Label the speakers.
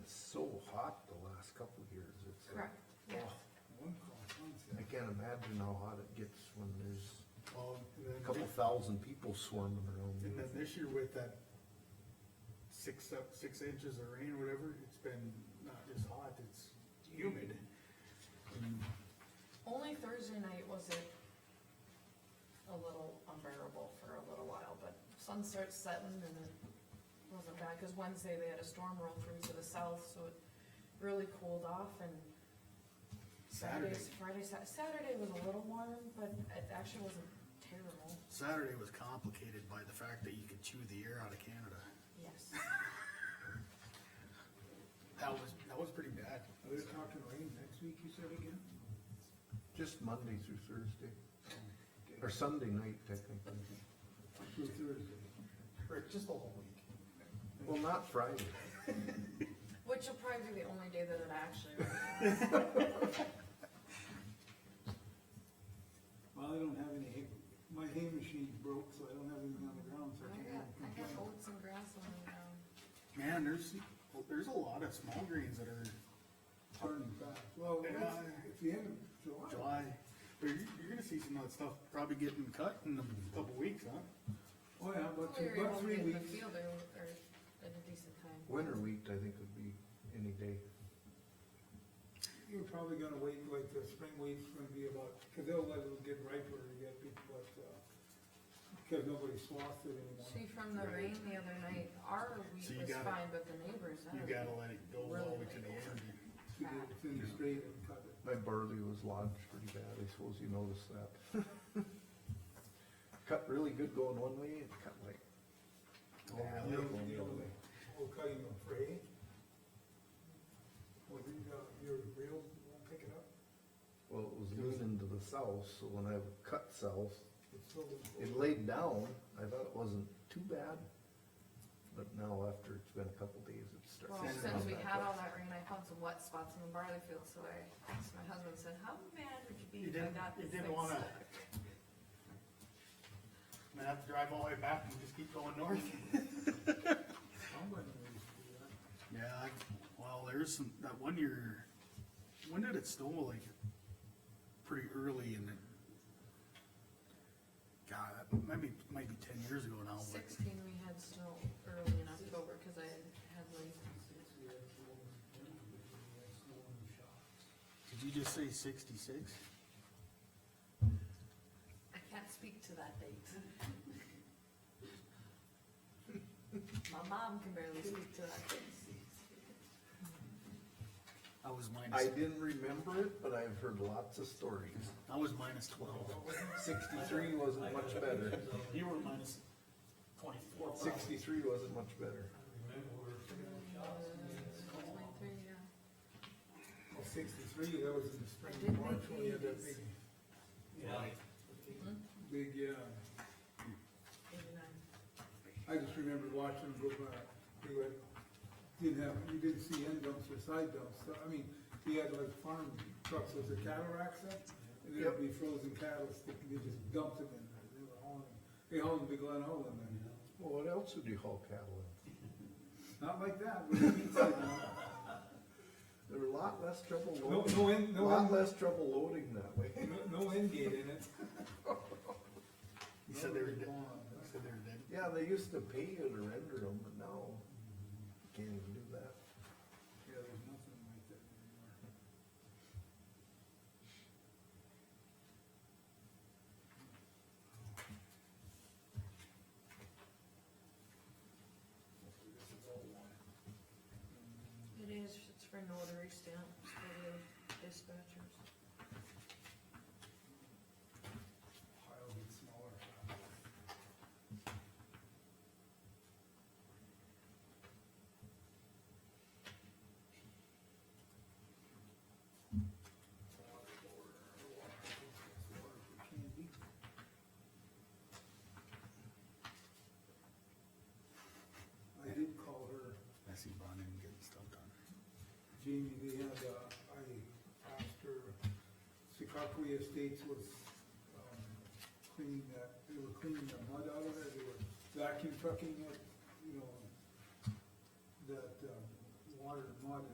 Speaker 1: uh, can't imagine how hot it gets when there's
Speaker 2: Well, and
Speaker 1: a
Speaker 2: then,
Speaker 1: couple thousand people swarming
Speaker 2: and
Speaker 1: around.
Speaker 2: then this year with that six up, six inches of rain or whatever, it's been not just hot, it's humid. And
Speaker 3: Only Thursday night was it a little unbearable for a little while, but sun starts setting and it wasn't bad, cause Wednesday they had a storm roll through to the south, so it really cooled off and
Speaker 2: Saturday,
Speaker 3: Saturday, Friday, Sat- Saturday was a little warm, but it actually wasn't terrible.
Speaker 2: Saturday was complicated by the fact that you could chew the air out of Canada.
Speaker 3: Yes.
Speaker 2: That was, that was pretty bad.
Speaker 4: Are we talking rain next week, you said again?
Speaker 1: Just Monday through Thursday, or Sunday night technically.
Speaker 4: Through Thursday.
Speaker 2: Or just the whole week.
Speaker 1: Well, not Friday.
Speaker 3: Which will probably be the only day that it actually,
Speaker 4: Well, I don't have any hay, my hay machine's broke, so I don't have anything on the ground, so I
Speaker 3: I
Speaker 4: can't
Speaker 3: got, Oh, I got
Speaker 4: complain.
Speaker 3: oats and grass on um, the ground.
Speaker 2: Man, there's, there's a lot of small greens that are
Speaker 4: Turning back. Well,
Speaker 2: Yeah.
Speaker 4: that's, it's the end of July.
Speaker 2: July, but you're, you're gonna see some of that stuff probably getting cut in a couple weeks, huh?
Speaker 4: Oh, yeah, but two,
Speaker 3: Hopefully we won't
Speaker 4: but
Speaker 3: get in the
Speaker 4: three weeks.
Speaker 3: field or, or at a decent time.
Speaker 1: Winter wheat, I think, would be any day.
Speaker 4: You're probably gonna wait, like, the spring wheat's gonna be about, cause they'll let it get riper to get people, but, uh, cause nobody swathed it anymore.
Speaker 3: See, from the rain the other night, our wheat
Speaker 2: So
Speaker 3: was
Speaker 2: you gotta-
Speaker 3: fine, but the neighbors, that
Speaker 2: You
Speaker 3: was
Speaker 2: gotta let it go all the way to the end.
Speaker 4: She did it in the straight and cut it.
Speaker 1: My barley was lodged pretty bad, I suppose you noticed that. Cut really good going one way, and cut like,
Speaker 2: Yeah,
Speaker 1: Oh, Yeah.
Speaker 4: You know, you know, like, Oh, cutting a fray? Well, you got, your reel won't pick it up,
Speaker 1: well, it was leaning to the south, so when I would cut south,
Speaker 4: it's still.
Speaker 1: it laid down, I thought it wasn't too bad. But now after it's been a couple days, it starts.
Speaker 3: Well,
Speaker 2: Send
Speaker 1: to
Speaker 2: it
Speaker 1: come
Speaker 3: since we
Speaker 1: back
Speaker 3: had
Speaker 1: up.
Speaker 3: all that rain, I found some wet spots in the barley field, so I asked my husband, said, how mad would you be
Speaker 2: You
Speaker 3: if I
Speaker 2: didn't,
Speaker 3: got
Speaker 2: you
Speaker 3: this thing
Speaker 2: didn't wanna.
Speaker 3: stuck?"
Speaker 2: I'm gonna have to drive all the way back and just keep going north.
Speaker 4: Somebody needs to do that.
Speaker 2: Yeah, I, well, there's some, that one year, when did it snow, like, pretty early in the. God, that might be, might be ten years ago now, but
Speaker 3: Sixteen, we had snow early in October, cause I had like,
Speaker 2: did you just say sixty-six?
Speaker 3: I can't speak to that date. My mom can barely speak to that date.
Speaker 2: I was
Speaker 1: I
Speaker 2: minus,
Speaker 1: didn't remember it, but I've heard lots of stories.
Speaker 2: I was minus twelve.
Speaker 1: Sixty-three wasn't much better,
Speaker 2: You were minus twenty-four.
Speaker 1: sixty-three wasn't much better.
Speaker 3: Uh, Twenty-three, yeah.
Speaker 4: Well, Oh, Sixty-three, that was in the spring,
Speaker 3: I did
Speaker 4: March,
Speaker 3: make
Speaker 4: when we had that
Speaker 3: these.
Speaker 4: big,
Speaker 2: Right.
Speaker 4: big, yeah,
Speaker 3: Eighty-nine.
Speaker 4: I just remember watching them go by, they were, didn't have, you didn't see end dumps or side dumps, so, I mean, we had like farm trucks with the cattle racks up, and there'd be frozen cattle, sticking- they just dumped it in there, they were hauling, they hauled the big Glen Hole in there.
Speaker 1: Well, what else would you haul cattle in?
Speaker 4: Not like that, with the meat sitting on it.
Speaker 1: There were a lot less trouble
Speaker 4: no,
Speaker 1: loading,
Speaker 4: no end,
Speaker 1: a
Speaker 4: no
Speaker 1: lot
Speaker 4: end,
Speaker 1: less trouble loading that way.
Speaker 4: no, no end gate in it.
Speaker 2: You said they were, dead.
Speaker 4: Gone.
Speaker 2: you said they were dead.
Speaker 1: Yeah, they used to pay you to render them, but now you can't even do that.
Speaker 4: Yeah, there's nothing like that anymore.
Speaker 3: It is, it's for notary stamps, for the dispatchers.
Speaker 4: Pile gets smaller. I did call her.
Speaker 2: I see Bonin getting stuff done.
Speaker 4: Jamie, they had, uh, I asked her, Secaucus Estates was, um, cleaning that, they were cleaning the mud out of it, they were vacuum trucking it, you know, that, um, water and mud